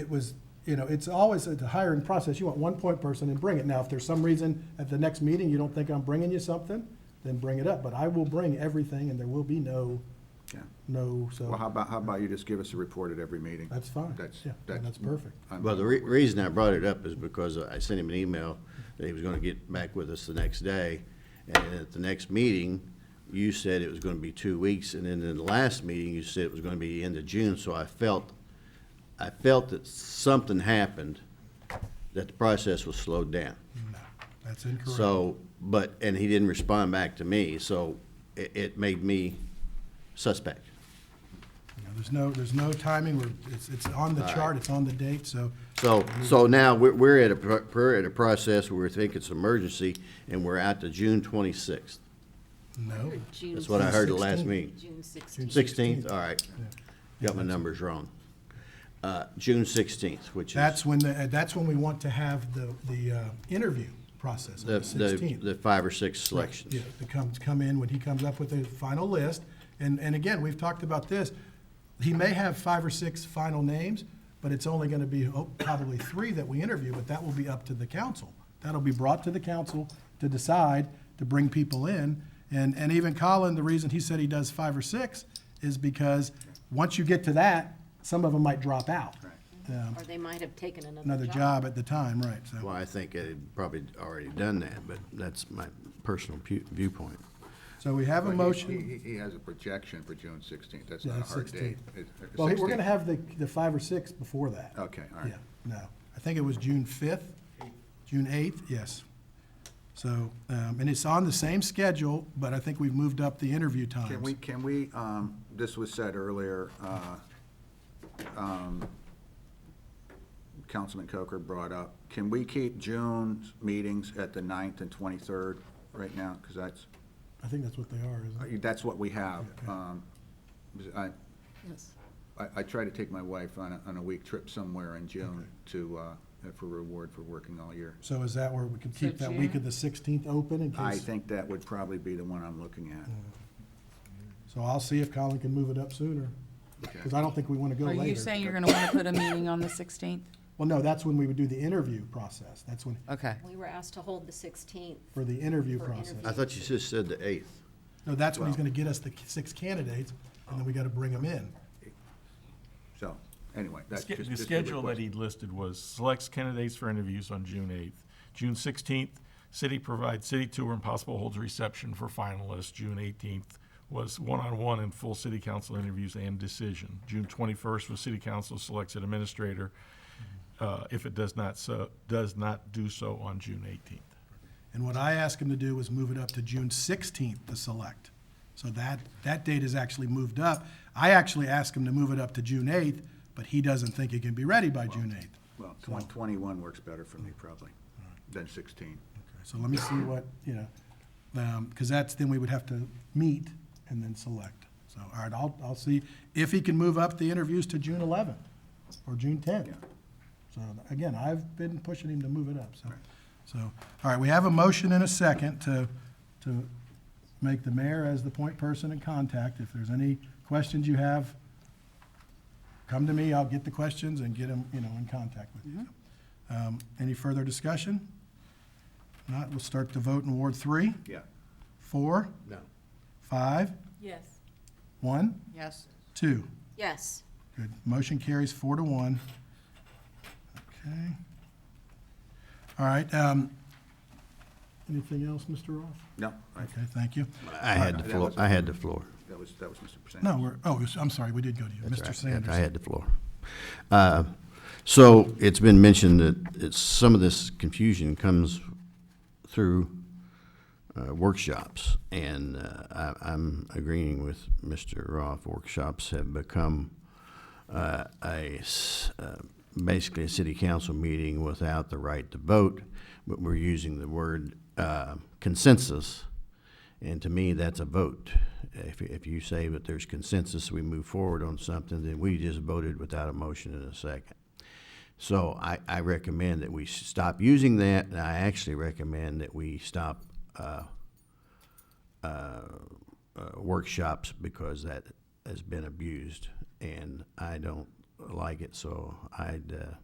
it was, you know, it's always a- the hiring process, you want one point person and bring it. Now, if there's some reason at the next meeting you don't think I'm bringing you something, then bring it up, but I will bring everything and there will be no, Yeah. no, Well, how so, about, how about you just give us a report at every meeting? that's fine. That's, Yeah, that's. That's perfect. I'm- Well, the re- reason I brought it up is because I sent him an email that he was gonna get back with us the next day. And at the next meeting, you said it was gonna be two weeks, and then in the last meeting, you said it was gonna be end of June, so I felt, I felt that something happened, that the process was slowed down. That's incorrect. So, but, and he didn't respond back to me, so it, it made me suspect. You know, There's no, there's no timing, We're- it's, it's on the chart, it's on the date, so So, so now we're, we're at a, pro- we're at a process where we think it's emergency and we're out to June twenty-sixth. no. June Oh, That's what I heard the last 16th. meeting. June sixteenth. Sixteenth, all right. Got my numbers wrong. Uh, June sixteenth, which is That's when, the uh, that's when we want to have the, the uh, interview process, the, on the the, 16th. the five or six selections. Yeah, to come, to come in, when he comes up with a final list, and, and again, we've talked about this, he may have five or six final names, but it's only gonna be, oh, probably three that we interview, but that will be up to the council. That'll be brought to the council to decide, to bring people in, and, and even Colin, the reason he said he does five or six is because, once you get to that, some of them might drop out. Um, Or they might have taken another job. Another job at the time, right, so. Well, I think it had probably already done that, but that's my personal pu- viewpoint. So we have a But he- motion. He, he has a projection for June sixteenth, that's Yeah, not a hard 16th. date. It- Well, we're 16th. gonna have the, the five or six before that. Okay, all right. Yeah, no, I think it was June fifth, June eighth, yes. So, um, and it's on the same schedule, but I think we've moved up the interview Can we, times. can we, um, this was said earlier, uh, um, Councilman Coker brought up, can we keep June's meetings at the 9th and twenty-third right now? Because that's, I think that's what they are, isn't it? that's what we have. Um, I, Yes. I, I try to take my wife on a, on a week trip somewhere in June to, uh, for reward for working all year. So is that where we could keep So that week June- of the sixteenth open in I case? think that would probably be the one I'm looking at. So I'll see if Colin can move it up sooner, because I don't think we wanna go Are later. you saying you're gonna wanna put a meeting on the sixteenth? Well, no, that's when we would do the interview process, that's when, Uh, Okay. We were asked to hold the sixteenth. for the interview For process. interview. I thought you just said the eighth. No, that's when he's Well- gonna get us the six candidates, and then we gotta bring them in. So, anyway, The that's sch- just. The just a schedule that request. he listed was selects candidates for interviews on June 8th. June 16th, city provides city tour and possible holds reception for finalists. June 18th was one-on-one and full city council interviews and decision. June 21st was city council selects an administrator uh, if it does not so, does not do so on June 18th. And what I asked him to do was move it up to June sixteenth to select. So that, that date is actually moved up. I actually asked him to move it up to June eighth, but he doesn't think it can be ready by June eighth. Well, twen- twenty-one works better for me probably than sixteen. So let me see what, you know, um, because that's, then we would have to meet and then select. So, all right, I'll, I'll see if he can move up the interviews to June eleventh or June tenth. Yeah. So again, I've been pushing him to move it up, so. So, all right, we have a motion and a second to, to make the mayor as the point person and contact. If there's any questions you have, come to me, I'll get the questions and get them, you know, in contact with you. Mm-hmm. Um, Any further discussion? Not, we'll start the vote in Ward three, Yeah. four, No. five, Yes. one, Yes. two. Yes. Good. Motion carries four to one. Okay. All right. um, Anything else, Mr. Roth? No, I- Okay, thank you. I had the floor, I had the floor. that was, that was Mr. Persing. No, we're, oh, I'm sorry, we did go to you. That's Mr. right. Sanders. I had the floor. Uh, So it's been mentioned that it's, some of this confusion comes through uh, workshops. And uh, I, I'm agreeing with Mr. Roth, workshops have become uh, a, s- uh, basically a city council meeting without the right to vote, but we're using the word uh, consensus. And to me, that's a vote. If, if you say that there's consensus, we move forward on something, then we just voted without a motion and a second. So I, I recommend that we stop using that, and I actually recommend that we stop, uh, uh, uh, workshops because that has been abused. And I don't like it, so I'd, uh,